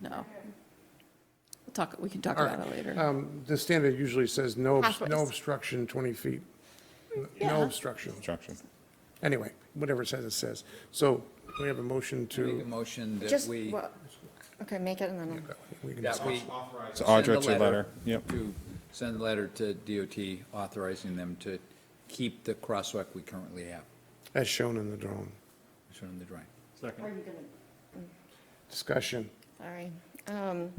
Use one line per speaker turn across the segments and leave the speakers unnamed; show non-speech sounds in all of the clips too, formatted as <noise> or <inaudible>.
No. We'll talk, we can talk
All
about
right.
it later.
Um, The standard usually says no, obs-
Halfway.
no obstruction 20 feet. N-
Yeah.
No obstruction.
construction.
Anyway, whatever it says, it says. So we have a motion
Make a
to,
motion that
Just,
we,
well, okay, make it and then, I'll-
we can
that we.
So
send
Audra
a
to letter, yep.
To send a letter to DOT authorizing them to keep the crosswalk we currently have,
as shown in the drawing.
shown in the drawing.
Discussion.
sorry. Um,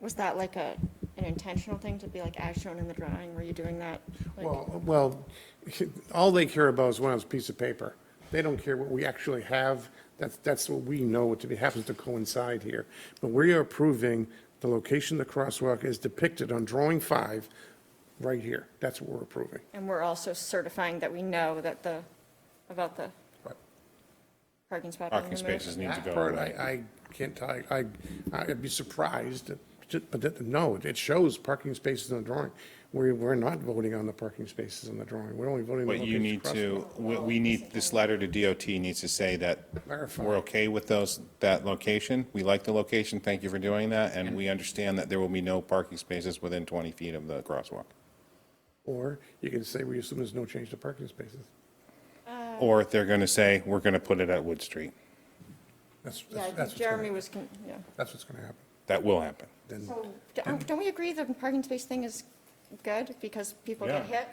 Was that like a, an intentional thing to be like as shown in the drawing? Were you doing that? like-
Well, well, <laughs> all they care about is one of those piece of paper. They don't care what we actually have. That's, that's what we know to be, happens to coincide here. But we are approving the location of the crosswalk is depicted on drawing five, right here. That's what we're approving.
And we're also certifying that we know that the, about the
Right.
parking spot being
Parking
removed?
spaces need to
That
go
part,
away.
I, I can't, tell. I, I- I'd be surprised, but that, no, it shows parking spaces on the drawing. We, we're not voting on the parking spaces on the drawing. We're only voting on the
But you
location
need
of the crosswalk.
to, we, we need, this letter to DOT needs to say that
Verify.
we're okay with those, that location. We like the location, thank you for doing that, and we understand that there will be no parking spaces within 20 feet of the crosswalk.
Or you can say, we assume there's no change to parking spaces.
Uh,
Or if they're going to say, we're going to put it at Wood Street.
That's,
Yeah, I
that's, that's
think
what's gonna
Jeremy
happen.
was, con- yeah.
That's what's gonna happen.
That will happen.
Then,
So, don't don't we agree the parking space thing is good because people get
Yeah.
hit?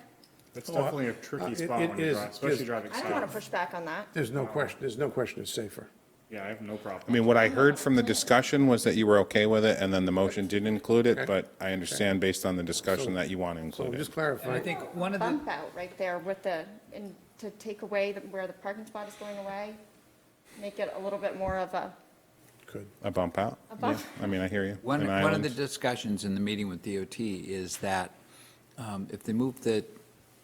That's definitely a
uh,
tricky
it-
spot
it
when you
is,
drive,
it
especially
is.
driving
I don't want to
south.
push back on that.
there's no question, there's no question it's safer.
Yeah, I have no
I
problem.
mean, what I heard from the discussion was that you were okay with it, and then the motion didn't include it, but I understand based on the discussion that you want to
So
include
just
it.
And I
clarifying,
think one of the,
bump out right there with the, and to take away the- where the parking spot is going away, make it a little bit more of a,
could,
A bump out?
A bump.
Yeah, I mean, I hear you.
one,
An
one of
island.
the discussions in the meeting with DOT is that um, if they move the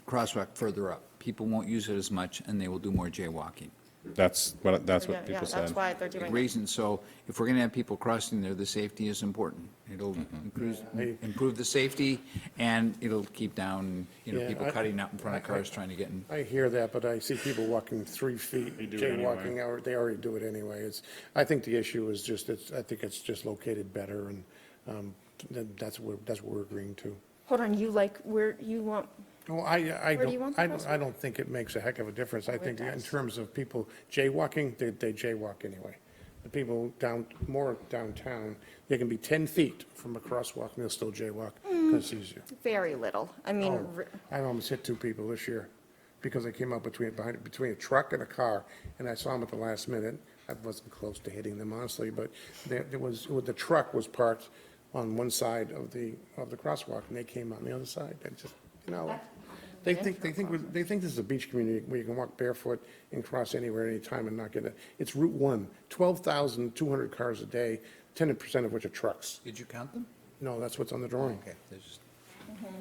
crosswalk further up, people won't use it as much and they will do more jaywalking.
That's what, that's
yeah,
what people said.
that's why they're
Big
doing it.
reason, so if we're going to have people crossing there, the safety is important. It'll improves- improve the safety and it'll keep down, you know,
Yeah,
people
I-
cutting out in front of
I- I-
cars trying to get in.
I hear that, but I see people walking three feet,
They do it anyway.
jaywalking, or they already do it anyway. It's, I think the issue is just, it's, I think it's just located better, and, um, th- that's what, that's what we're agreeing to.
Hold on, you like, where, you want,
No, I, I
Where do you
don't,
want the
I don't, I
crosswalk?
don't think it makes a heck of a difference. I
it
think in
does.
terms of people jaywalking, they, they jaywalk anyway. The people down, more downtown, they can be 10 feet from a crosswalk and they'll still jaywalk because it's easier.
very little. I mean,
Oh,
re-
I almost hit two people this year because I came up between, behind, between a truck and a car and I saw them at the last minute. I wasn't close to hitting them honestly, but there, there was, the truck was parked on one side of the, of the crosswalk and they came on the other side. And just, you know, they think, they think, we're- they think this is a beach community where you can walk barefoot and cross anywhere, anytime and not get it. It's Route One, 12,200 cars a day, 10% of which are trucks.
Did you count them?
No, that's what's on the drawing.
Okay, there's just.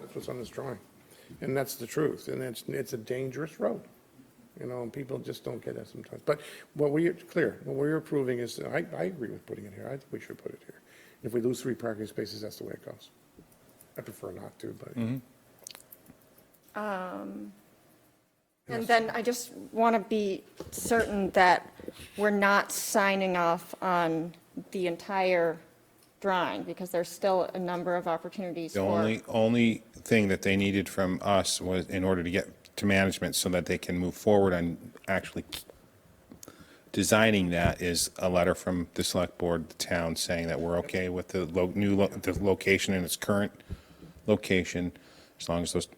That's what's on this drawing. And that's the truth, and it's, it's a dangerous road. You know, and people just don't get that sometimes. But what we, it's clear, what we're approving is, I, I agree with putting it here. I think we should put it here. If we lose three parking spaces, that's the way it goes. I prefer not to, but
Mm-hmm.
and then I just want to be certain that we're not signing off on the entire drawing because there's still a number of opportunities
The
for.
only, only thing that they needed from us was, in order to get to management so that they can move forward on actually designing that is a letter from the select board, the town, saying that we're okay with the lo, new, lo- the location and its current location, as long as there's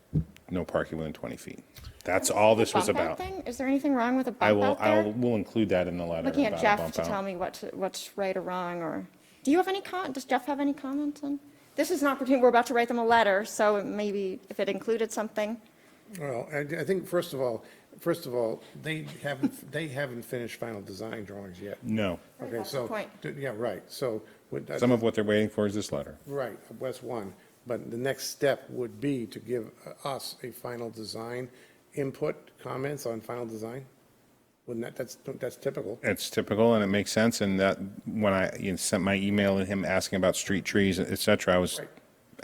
no parking within 20 feet. That's all this was
Bump out
about.
thing? Is there anything wrong with a
I
bump
will,
out there?
I'll, we'll include that in the letter
Looking
about
at
a
Jeff
bump
to
out.
tell me what, to- what's right or wrong, or, do you have any con, does Jeff have any comments on? This is an opportunity, we're about to write them a letter, so maybe if it included something,
Well, I, I think, first of all, first of all, they haven't, they haven't finished final design drawings yet.
No.
Okay,
That's the
so,
point.
d- yeah, right, so. what-
Some of what they're waiting for is this letter.
Right, West One, but the next step would be to give us a final design input, comments on final design? Wouldn't that, that's, that's typical.
It's typical and it makes sense. And that when I you know, sent my email to him asking about street trees, et cetera, I was
Right.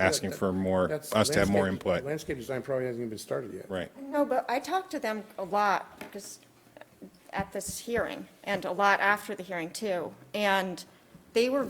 asking for more,
That's-
us to have more
landscape-
input.
Landscape design probably hasn't even been started yet.
Right.
No, but I talked to them a lot, because at this hearing, and a lot after the hearing, too. And they were